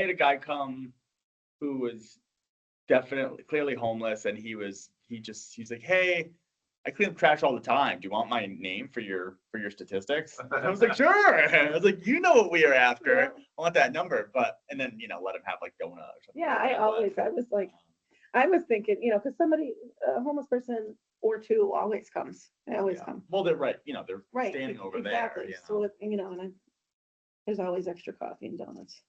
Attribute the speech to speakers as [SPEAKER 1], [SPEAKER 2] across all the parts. [SPEAKER 1] had a guy come who was definitely clearly homeless and he was he just he's like hey i clean up trash all the time do you want my name for your for your statistics And i was like sure i was like you know what we are after i want that number but and then you know let him have like donut or something
[SPEAKER 2] Yeah, I
[SPEAKER 1] but- um,
[SPEAKER 2] always, I was like, I was thinking, you know, because somebody, a homeless person or two always comes, they always
[SPEAKER 1] Yeah.
[SPEAKER 2] come.
[SPEAKER 1] well they're right you know they're
[SPEAKER 2] Right.
[SPEAKER 1] standing
[SPEAKER 2] e-
[SPEAKER 1] over there
[SPEAKER 2] exactly.
[SPEAKER 1] you
[SPEAKER 2] So,
[SPEAKER 1] know?
[SPEAKER 2] if- you know, and I, there's always extra coffee and donuts.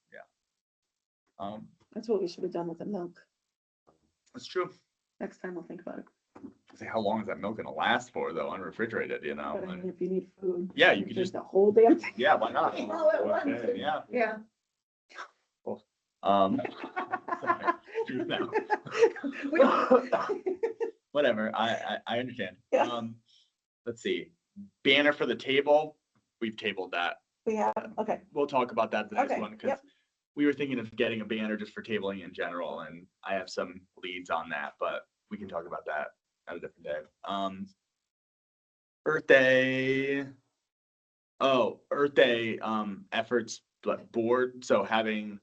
[SPEAKER 1] um
[SPEAKER 2] That's what we should have done with the milk.
[SPEAKER 1] it's true
[SPEAKER 2] Next time we'll think about it.
[SPEAKER 1] Say, how long is that milk gonna last for though unrefrigerated you know
[SPEAKER 2] But I
[SPEAKER 1] And-
[SPEAKER 2] mean, if you need food.
[SPEAKER 1] Oh, Yeah, you
[SPEAKER 2] can
[SPEAKER 1] could just-
[SPEAKER 2] The whole damn thing.
[SPEAKER 1] yeah why not
[SPEAKER 2] All at once.
[SPEAKER 3] Okay.
[SPEAKER 1] yeah
[SPEAKER 2] Yeah.
[SPEAKER 1] um true now.
[SPEAKER 2] We-
[SPEAKER 1] whatever. I, I, I understand.
[SPEAKER 2] Yeah.
[SPEAKER 1] Um, let's see. Banner for the table. We've tabled that.
[SPEAKER 2] We have, okay,
[SPEAKER 1] We'll talk about that the next
[SPEAKER 2] Okay,
[SPEAKER 1] one because
[SPEAKER 2] yep.
[SPEAKER 1] we were thinking of getting a banner just for tabling in general, and I have some leads on that, but we can talk about that at a different day. Um, Earth Day. Oh, Earth Day um, efforts like board. So having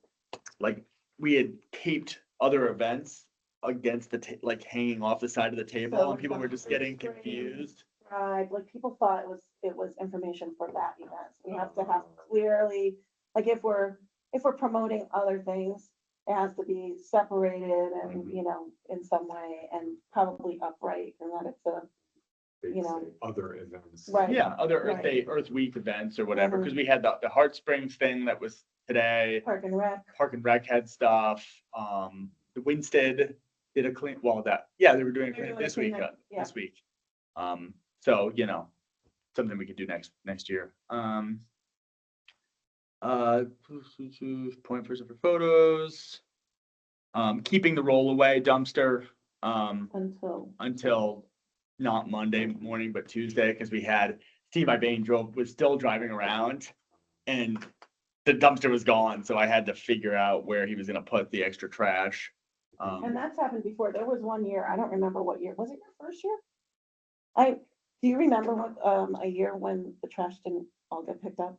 [SPEAKER 1] like we had taped other events against the ta- like hanging off the side of the table,
[SPEAKER 2] So
[SPEAKER 1] and people were just
[SPEAKER 2] it's
[SPEAKER 1] getting
[SPEAKER 2] free.
[SPEAKER 1] confused.
[SPEAKER 2] right, like people thought it was, it was information for that event. We have to have clearly, like if we're, if we're promoting other things, it has to be separated and,
[SPEAKER 1] Mhm.
[SPEAKER 2] you know, in some way and probably upright and that it's a, you know.
[SPEAKER 3] Other events.
[SPEAKER 2] Right.
[SPEAKER 1] Yeah, other Earth Day,
[SPEAKER 2] Right.
[SPEAKER 1] Earth Week events or whatever,
[SPEAKER 2] Mhm.
[SPEAKER 1] because we had the, the Heart Springs thing that was today.
[SPEAKER 2] park and rec.
[SPEAKER 1] Park and Rec had stuff. Um, the Winstead did a clean, well, that, yeah, they were doing a
[SPEAKER 2] They're
[SPEAKER 1] clean
[SPEAKER 2] doing a
[SPEAKER 1] this week,
[SPEAKER 2] cleanup,
[SPEAKER 1] uh,
[SPEAKER 2] yeah.
[SPEAKER 1] this week. Um, so, you know, something we could do next, next year. Um, uh, point person for photos. Um, keeping the roll away dumpster, um,
[SPEAKER 2] Until,
[SPEAKER 1] until not Monday morning, but Tuesday, because we had Steve Ibane drove, was still driving around and the dumpster was gone, so I had to figure out where he was gonna put the extra trash.
[SPEAKER 2] and
[SPEAKER 1] Um,
[SPEAKER 2] that's happened before. There was one year, I don't remember what year, was it your first year? I, do you remember what, um, a year when the trash didn't all get picked up?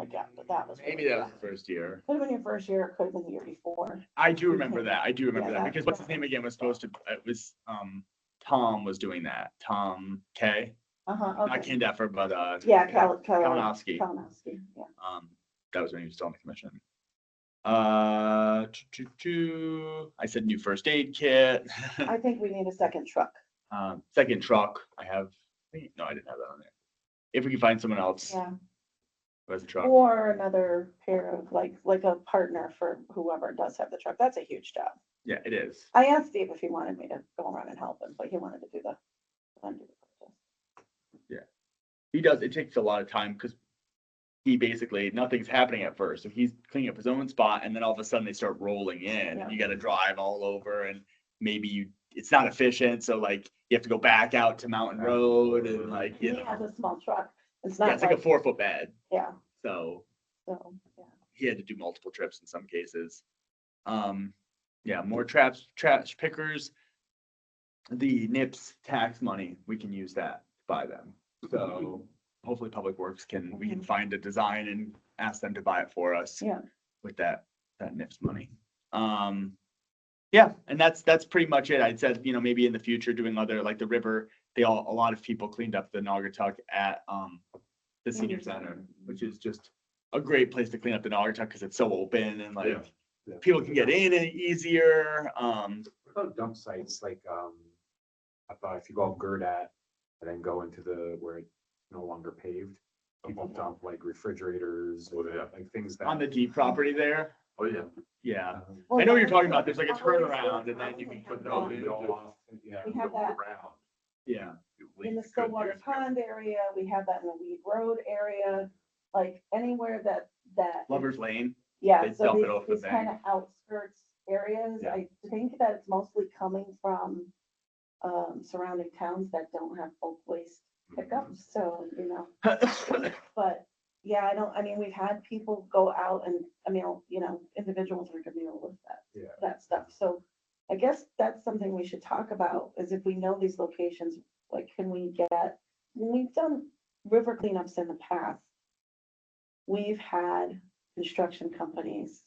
[SPEAKER 2] I get- but that was
[SPEAKER 1] Mm, Maybe
[SPEAKER 2] really
[SPEAKER 1] that was
[SPEAKER 2] bad.
[SPEAKER 1] the first year.
[SPEAKER 2] Could have been your first year, it could have been the year before.
[SPEAKER 1] I do remember that, I do remember
[SPEAKER 2] Yeah,
[SPEAKER 1] that,
[SPEAKER 2] that-
[SPEAKER 1] because what's his name again was supposed to, it was, um, Tom was doing that, Tom K,
[SPEAKER 2] Uh-huh,
[SPEAKER 1] not
[SPEAKER 2] okay.
[SPEAKER 1] Ken Deffer, but, uh.
[SPEAKER 2] Yeah, Cal, Cal,
[SPEAKER 1] Kalinowski.
[SPEAKER 2] Kalinowski, yeah.
[SPEAKER 1] Um, that was when he was still on the commission. Uh, tu- tu- tu, I said new first aid kit,
[SPEAKER 2] I think we need a second truck.
[SPEAKER 1] um, second truck, I have, wait, no, I didn't have that on there. If we can find someone else
[SPEAKER 2] Yeah.
[SPEAKER 1] who has a truck,
[SPEAKER 2] Or another pair of, like, like a partner for whoever does have the truck. That's a huge job.
[SPEAKER 1] yeah, it is.
[SPEAKER 2] I asked Steve if he wanted me to go around and help him, but he wanted to do the. undo the purchase.
[SPEAKER 1] He does, it takes a lot of time, cause he basically, nothing's happening at first, so he's cleaning up his own spot, and then all of a sudden they start rolling in,
[SPEAKER 2] Yeah.
[SPEAKER 1] and you gotta drive all over, and maybe you, it's not efficient, so like, you have to go back out to Mountain Road, and like, you
[SPEAKER 2] He
[SPEAKER 1] know,
[SPEAKER 2] has a small truck. It's
[SPEAKER 1] yeah,
[SPEAKER 2] not
[SPEAKER 1] it's like a
[SPEAKER 2] like,
[SPEAKER 1] four foot bed,
[SPEAKER 2] yeah,
[SPEAKER 1] so.
[SPEAKER 2] so, yeah.
[SPEAKER 1] he had to do multiple trips in some cases. Um, yeah, more traps, trash pickers. The NIPS tax money, we can use that to buy them. So hopefully Public Works can, we can find a design and ask them to buy it for us.
[SPEAKER 2] Yeah.
[SPEAKER 1] With that, that NIPS money. Um, yeah, and that's, that's pretty much it. I'd said, you know, maybe in the future doing other, like the river, they all, a lot of people cleaned up the Naugatuck at, um, the senior center, which is just a great place to clean up the Naugatuck because it's so open and like
[SPEAKER 3] Yeah.
[SPEAKER 1] people can get in it easier. Um,
[SPEAKER 3] What About dump sites, like, um, I thought if you go up Gerdat and then go into the, where it's no longer paved, people dump like refrigerators,
[SPEAKER 4] Oh,
[SPEAKER 3] and,
[SPEAKER 4] yeah.
[SPEAKER 3] like things that.
[SPEAKER 1] Uh-huh. on the deep property there.
[SPEAKER 4] Oh, yeah.
[SPEAKER 1] Yeah,
[SPEAKER 3] um,
[SPEAKER 1] I know what you're talking about. There's like a turnaround and then you can put
[SPEAKER 3] no,
[SPEAKER 1] Oh,
[SPEAKER 3] they
[SPEAKER 1] yeah.
[SPEAKER 3] go off, Yeah.
[SPEAKER 2] We have
[SPEAKER 4] Go
[SPEAKER 2] that.
[SPEAKER 4] around.
[SPEAKER 1] yeah.
[SPEAKER 2] In the Stillwater Pond area, we have that in the Weed Road area, like anywhere that, that.
[SPEAKER 1] Lover's Lane.
[SPEAKER 2] Yeah,
[SPEAKER 1] They
[SPEAKER 2] so
[SPEAKER 1] dump it
[SPEAKER 2] these,
[SPEAKER 1] off the
[SPEAKER 2] these kind of outskirts areas,
[SPEAKER 3] Yeah.
[SPEAKER 2] I think that it's mostly coming from um, surrounding towns that don't have bulk waste pickup,
[SPEAKER 1] Mm-hmm.
[SPEAKER 2] so, you know, but, yeah, I don't, I mean, we've had people go out and, I mean, you know, individuals are gonna deal with that,
[SPEAKER 3] Yeah.
[SPEAKER 2] that stuff, so I guess that's something we should talk about, is if we know these locations, like, can we get, when we've done river cleanups in the past, we've had construction companies